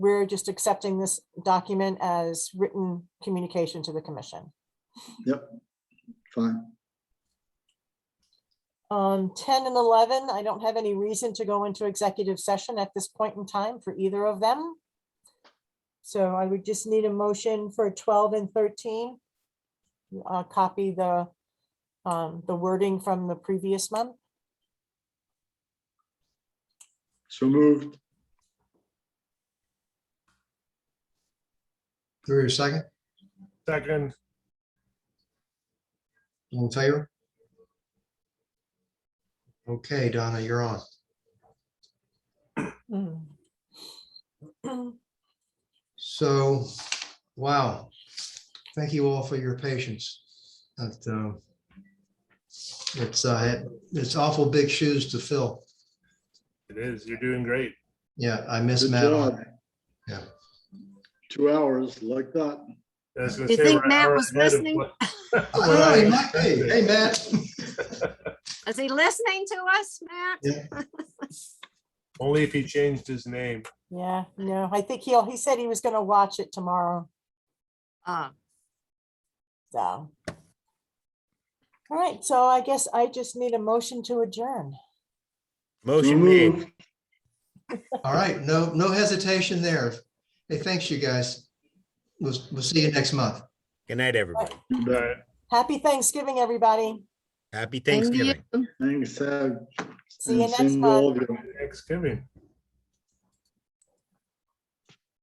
we're just accepting this document as written communication to the commission. Yep, fine. Um, ten and eleven, I don't have any reason to go into executive session at this point in time for either of them. So I would just need a motion for twelve and thirteen. Uh, copy the, um, the wording from the previous month. So moved. Through your second, Second, all in favor? Okay, Donna, you're on. Mm. So, wow. Thank you all for your patience. That, uh, It's, uh, it's awful big shoes to fill. it is. You're doing great. Yeah, I miss Good Matt. job. on- Yeah. Two hours like that. I was gonna Do you say think we're an Matt hour was ahead of listening? what- I don't know, he might be. Hey, Matt. Is he listening to us, Matt? Yeah. Only if he changed his name. Yeah, no, I think he'll, he said he was gonna watch it tomorrow, Ah, so. All right, so I guess I just need a motion to adjourn. So Motion made. moved. All right, no, no hesitation there. Hey, thanks, you guys. We'll, we'll see you next month. Good night, everybody. All right. Happy Thanksgiving, everybody. Happy thank Thanksgiving. you. Thanks, Ed. See you And next same to all month. of you. Thanksgiving.